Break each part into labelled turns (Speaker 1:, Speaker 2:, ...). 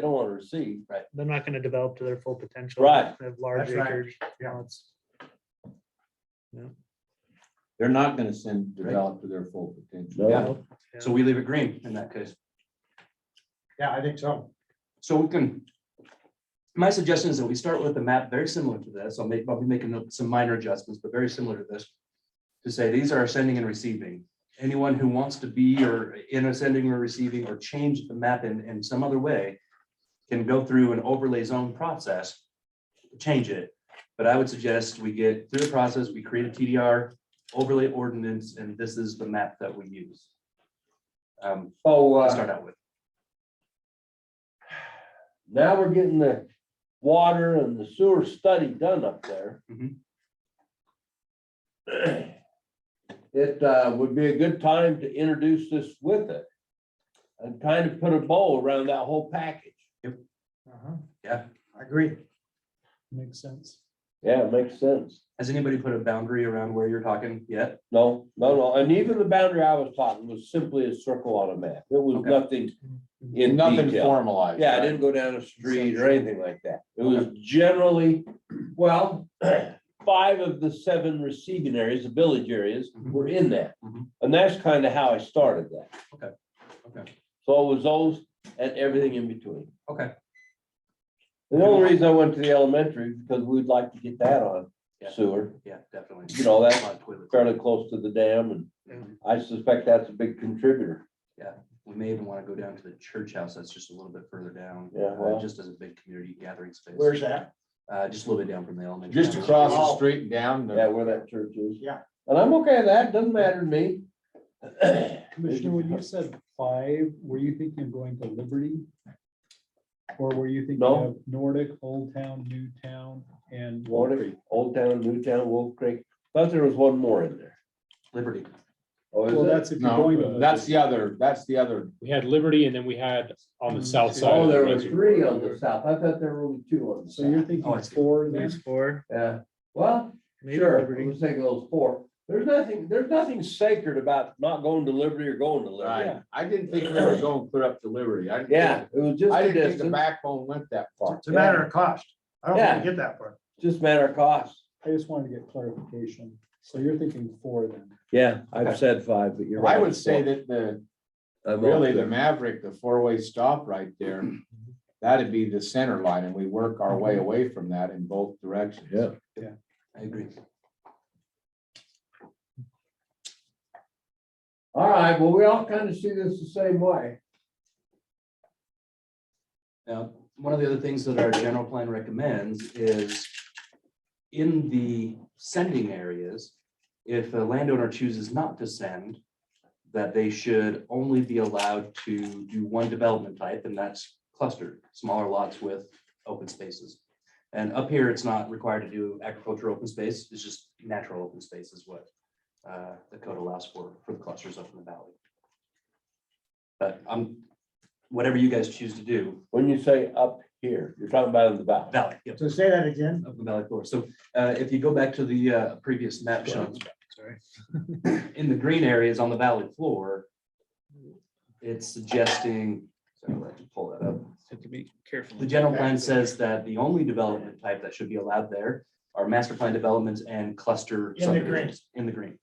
Speaker 1: They don't want to receive. Right.
Speaker 2: They're not gonna develop to their full potential.
Speaker 1: Right.
Speaker 2: They have large
Speaker 3: That's right.
Speaker 2: acreage.
Speaker 3: Yeah.
Speaker 2: lots.
Speaker 1: They're not gonna send, develop to their full potential.
Speaker 3: Yeah.
Speaker 2: Yeah.
Speaker 4: So we leave it green in that case.
Speaker 3: Yeah, I think so.
Speaker 4: So we can. My suggestion is that we start with a map very similar to this. I'll make, I'll be making some minor adjustments, but very similar to this. To say these are sending and receiving. Anyone who wants to be or in a sending or receiving or change the map in, in some other way. Can go through an overlay zone process. Change it. But I would suggest we get through the process, we create a TDR overlay ordinance, and this is the map that we use. Um,
Speaker 1: So,
Speaker 4: to
Speaker 1: uh,
Speaker 4: start out with.
Speaker 1: now we're getting the water and the sewer study done up there.
Speaker 4: Mhm.
Speaker 1: It, uh, would be a good time to introduce this with it. And kind of put a bow around that whole package.
Speaker 3: Uh-huh.
Speaker 4: Yeah.
Speaker 3: I agree.
Speaker 2: Makes sense.
Speaker 1: Yeah, it makes sense.
Speaker 4: Has anybody put a boundary around where you're talking yet?
Speaker 1: No, no, no. And even the boundary I was talking was simply a circle on a map. It was
Speaker 4: Okay.
Speaker 1: nothing in
Speaker 5: Nothing
Speaker 1: detail.
Speaker 5: formalized.
Speaker 1: Yeah, I
Speaker 5: right?
Speaker 1: didn't go down a street or anything like that. It was generally, well, five of the seven receiving areas, the village areas,
Speaker 4: Mhm.
Speaker 1: were in that.
Speaker 4: Mhm.
Speaker 1: And that's kind of how I started that.
Speaker 4: Okay, okay.
Speaker 1: So it was those and everything in between.
Speaker 4: Okay.
Speaker 1: The only reason I went to the elementary, because we'd like to get that on
Speaker 4: Yeah.
Speaker 1: sewer,
Speaker 4: Yeah, definitely.
Speaker 1: You know, that-
Speaker 4: A lot of toilets.
Speaker 1: fairly close to the dam, and
Speaker 4: Mhm.
Speaker 1: I suspect that's a big contributor.
Speaker 4: We may even want to go down to the church house. That's just a little bit further down.
Speaker 1: Yeah,
Speaker 4: uh,
Speaker 1: well.
Speaker 4: Just as a big community gathering space.
Speaker 3: Where's that?
Speaker 4: Uh, just a little bit down from the elementary.
Speaker 5: Just across the street and down. the-
Speaker 1: Yeah, where that church is.
Speaker 3: Yeah.
Speaker 1: And I'm okay with that, doesn't matter to me.
Speaker 6: Commissioner, when you said five, were you thinking of going to Liberty? Or were you thinking
Speaker 1: No.
Speaker 6: of Nordic, Old Town, New Town, and? Wolf
Speaker 1: Warwick,
Speaker 6: Creek?
Speaker 1: Old Town, New Town, Wolf Creek, thought there was one more in there.
Speaker 4: Liberty.
Speaker 1: Oh, is
Speaker 6: Well,
Speaker 1: it?
Speaker 6: that's if you're going to.
Speaker 5: No,
Speaker 6: Liberty.
Speaker 5: that's the other, that's the other.
Speaker 7: We had Liberty and then we had on
Speaker 2: Mm-hmm.
Speaker 7: the south side.
Speaker 1: Oh,
Speaker 7: of the
Speaker 1: there were
Speaker 7: reservoir.
Speaker 1: three on the south, I thought there were only two on the
Speaker 6: So you're
Speaker 1: south.
Speaker 4: Oh, I
Speaker 6: thinking
Speaker 4: see.
Speaker 6: four
Speaker 2: There's
Speaker 6: then?
Speaker 2: four.
Speaker 1: Yeah, well,
Speaker 2: Maybe
Speaker 1: sure,
Speaker 2: Liberty.
Speaker 1: we'll take those four, there's nothing, there's nothing sacred about not going to Liberty or going to Liberty.
Speaker 5: Right. I didn't think we were going clear up to Liberty. I. didn't
Speaker 1: Yeah, it was
Speaker 5: think-
Speaker 1: just
Speaker 5: I
Speaker 1: a
Speaker 5: didn't think the
Speaker 1: distance,
Speaker 5: backbone went that far.
Speaker 3: It's a matter of cost. I don't think we get that far.
Speaker 1: just matter of cost.
Speaker 6: I just wanted to get clarification. So you're thinking four then?
Speaker 1: Yeah, I've said five, but you're
Speaker 5: I would say that the, really the Maverick, the four-way stop right there, that'd be the center line and we work our way away from that in both directions.
Speaker 1: Yeah.
Speaker 4: I agree.
Speaker 1: All right, well, we all kind of see this the same way.
Speaker 4: Now, one of the other things that our general plan recommends is in the sending areas, if a landowner chooses not to send, that they should only be allowed to do one development type, and that's clustered, smaller lots with open spaces. And up here, it's not required to do agricultural open space, it's just natural open space is what uh, the code allows for, for the clusters up in the valley. But I'm, whatever you guys choose to do,
Speaker 1: When you say up here, you're talking about in the valley.
Speaker 4: Valley, yep,
Speaker 3: So say that again.
Speaker 4: of the valley floor. So uh, if you go back to the uh, previous map shown. In the green areas on the valley floor, it's suggesting, sorry, let me pull that up.
Speaker 2: Have to be careful.
Speaker 4: The general plan says that the only development type that should be allowed there are master plan developments and cluster.
Speaker 3: In the green.
Speaker 4: subdivisions, In the green.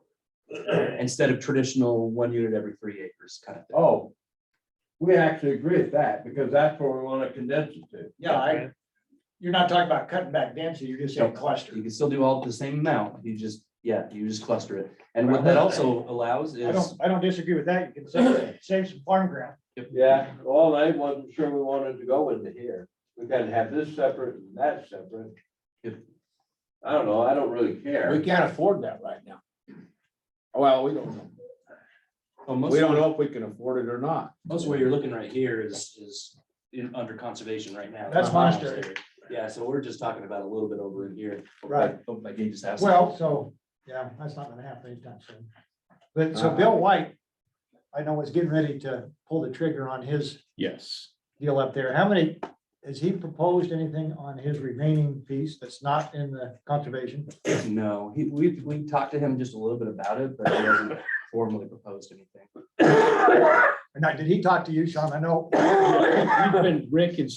Speaker 4: Instead of traditional one unit every three acres kind of thing.
Speaker 1: Oh, we actually agree with that because that's where we want to condense it to.
Speaker 3: Yeah, I, you're not talking about cutting back density, you're just saying cluster.
Speaker 4: You can still do all the same amount, you just, yeah, you just cluster it. And what that also allows
Speaker 3: I
Speaker 4: is,
Speaker 3: don't, I don't disagree with that. You can save, save some farm ground.
Speaker 1: Yeah, well, I wasn't sure we wanted to go into here. We gotta have this separate and that separate.
Speaker 4: Yep.
Speaker 1: I don't know, I don't really
Speaker 5: We
Speaker 1: care.
Speaker 5: can't afford that right now. Well, we don't, know.
Speaker 4: well, most
Speaker 5: we
Speaker 4: of
Speaker 5: don't know if we can afford it or not.
Speaker 4: Most of what you're looking right here is, is in, under conservation right now.
Speaker 3: That's monastery.
Speaker 4: Yeah, so we're just talking about a little bit over in here.
Speaker 3: Right.
Speaker 4: Hope my gauge is asking.
Speaker 3: Well, so, yeah, that's not gonna happen anytime soon. But so Bill White, I know was getting ready to pull the trigger on his
Speaker 7: Yes.
Speaker 3: deal up there. How many, has he proposed anything on his remaining piece that's not in the conservation?
Speaker 4: No, he, we, we talked to him just a little bit about it, but he hasn't formally proposed anything.
Speaker 3: And now, did he talk to you, Sean? I know.
Speaker 5: We've been, Rick and